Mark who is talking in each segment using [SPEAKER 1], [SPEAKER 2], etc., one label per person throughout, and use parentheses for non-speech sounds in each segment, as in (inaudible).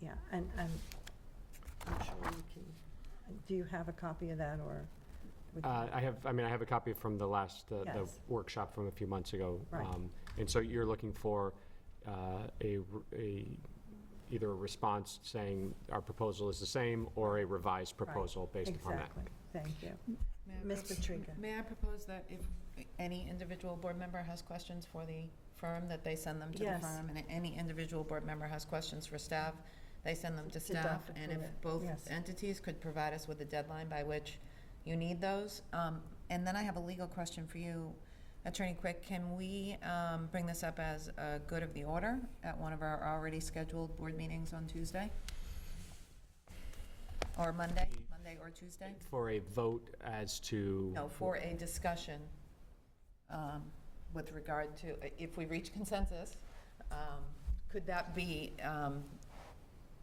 [SPEAKER 1] Yeah, and I'm, I'm sure you can, do you have a copy of that or? would you-
[SPEAKER 2] Uh, I have, I mean, I have a copy from the last, the- the
[SPEAKER 1] Yes.
[SPEAKER 2] workshop from a few months ago.
[SPEAKER 1] Right.
[SPEAKER 2] Um, And so you're looking for uh, a, r- a- either a response saying our proposal is the same or a revised proposal based upon that.
[SPEAKER 1] Exactly, thank you.
[SPEAKER 3] May I
[SPEAKER 1] Ms.
[SPEAKER 3] propose-
[SPEAKER 1] Patrica?
[SPEAKER 3] May I propose that if any individual board member has questions for the firm, that they send them to the
[SPEAKER 1] Yes.
[SPEAKER 3] firm? And if any individual board member has questions for staff, they send them to
[SPEAKER 1] To
[SPEAKER 3] staff?
[SPEAKER 1] Dr.
[SPEAKER 3] And
[SPEAKER 1] Pruitt,
[SPEAKER 3] if both
[SPEAKER 1] yes.
[SPEAKER 3] entities could provide us with a deadline by which you need those? Um, And then I have a legal question for you, Attorney Quick. Can we um, bring this up as a good of the order at one of our already scheduled board meetings on Tuesday? Or Monday, Monday or Tuesday?
[SPEAKER 2] For a vote as to.
[SPEAKER 3] No, for a discussion um, with regard to, uh, if we reach consensus, um, could that be, um,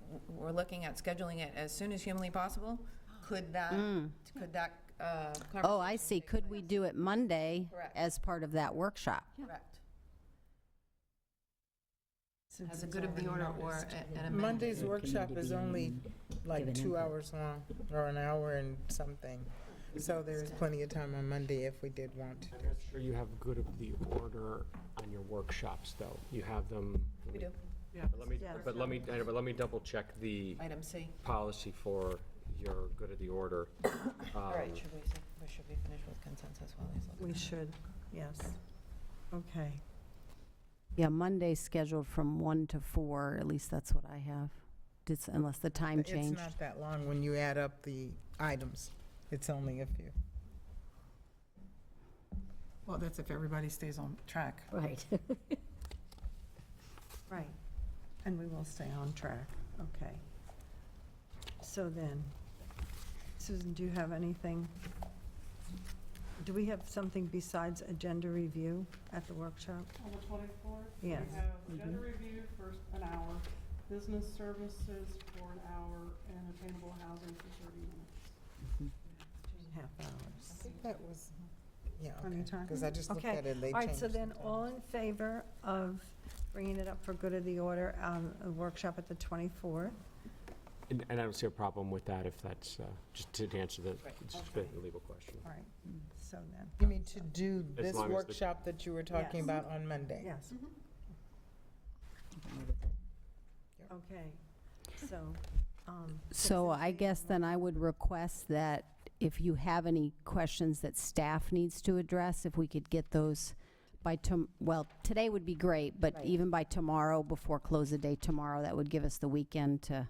[SPEAKER 3] w- we're looking at scheduling it as soon as humanly possible? Could that, could that? uh,
[SPEAKER 4] Mm. Oh, I
[SPEAKER 3] conversation
[SPEAKER 4] see.
[SPEAKER 3] take
[SPEAKER 4] Could we
[SPEAKER 3] place?
[SPEAKER 4] do it Monday
[SPEAKER 3] Correct.
[SPEAKER 4] as part of that workshop?
[SPEAKER 3] Correct.
[SPEAKER 1] Since
[SPEAKER 3] As a
[SPEAKER 1] it's
[SPEAKER 3] good of the
[SPEAKER 1] already
[SPEAKER 3] order or
[SPEAKER 1] noticed.
[SPEAKER 3] a- an amendment?
[SPEAKER 5] Monday's workshop is only like two hours long, or an hour and something. So there's plenty of time on Monday if we did want to.
[SPEAKER 2] I'm not sure you have good of the order on your workshops, though. You have them.
[SPEAKER 3] We do,
[SPEAKER 2] But let me,
[SPEAKER 1] Yes.
[SPEAKER 2] but let me, but let me double check the
[SPEAKER 3] item C.
[SPEAKER 2] policy for your good of the order. Um,
[SPEAKER 3] All right, should we, we should be finished with consensus while he's looking?
[SPEAKER 1] We should, yes. Okay,
[SPEAKER 4] Yeah, Monday's scheduled from 1 to 4, at least that's what I have, Dis- unless the time
[SPEAKER 5] It's
[SPEAKER 4] changed.
[SPEAKER 5] not that long when you add up the items. It's only a few.
[SPEAKER 6] Well, that's if everybody stays on track.
[SPEAKER 4] (laughs) Right.
[SPEAKER 1] right. And we will stay on track, okay. So then, Susan, do you have anything? Do we have something besides agenda review at the workshop?
[SPEAKER 7] On the 24th?
[SPEAKER 1] Yes. Mm-hmm.
[SPEAKER 7] We have agenda review for an hour, business services for an hour, and attainable housing for 30 minutes.
[SPEAKER 1] Half hours.
[SPEAKER 5] I think that was, yeah,
[SPEAKER 1] Plenty
[SPEAKER 5] okay,
[SPEAKER 1] of time.
[SPEAKER 5] because I just looked
[SPEAKER 1] Okay.
[SPEAKER 5] at it, they
[SPEAKER 1] All right, so
[SPEAKER 5] changed
[SPEAKER 1] then,
[SPEAKER 5] the time.
[SPEAKER 1] all in favor of bringing it up for good of the order, um, a workshop at the 24th?
[SPEAKER 2] And and I don't see a problem with that if that's, uh, just to answer the, it's the legal question.
[SPEAKER 1] All right, so then,
[SPEAKER 5] You mean to do this
[SPEAKER 2] long as the-
[SPEAKER 5] workshop that you were talking
[SPEAKER 1] Yes.
[SPEAKER 5] about on Monday?
[SPEAKER 1] yes. Okay, so. um,
[SPEAKER 4] So I
[SPEAKER 1] Susan,
[SPEAKER 4] guess then I would request that if you have any questions that staff needs to address, if we could get those by, tom- well, today would be great, but even by tomorrow, before close of day tomorrow, that would give us the weekend to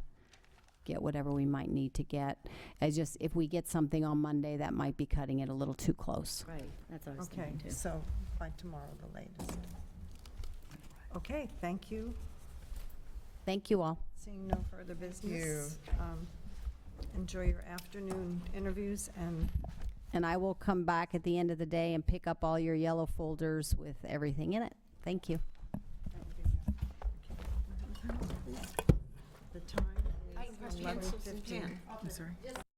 [SPEAKER 4] get whatever we might need to get. I just, if we get something on Monday, that might be cutting it a little too close.
[SPEAKER 8] Right, that's what I was
[SPEAKER 1] Okay,
[SPEAKER 8] thinking too.
[SPEAKER 1] so by tomorrow, the latest. Okay, thank you.
[SPEAKER 4] Thank you all.
[SPEAKER 1] Seeing no further business. um, Enjoy your afternoon interviews and
[SPEAKER 4] And I will come back at the end of the day and pick up all your yellow folders with everything in it. Thank you.
[SPEAKER 1] the time.
[SPEAKER 3] I can pass you some
[SPEAKER 1] 11:15.
[SPEAKER 3] pan.
[SPEAKER 6] I'm sorry.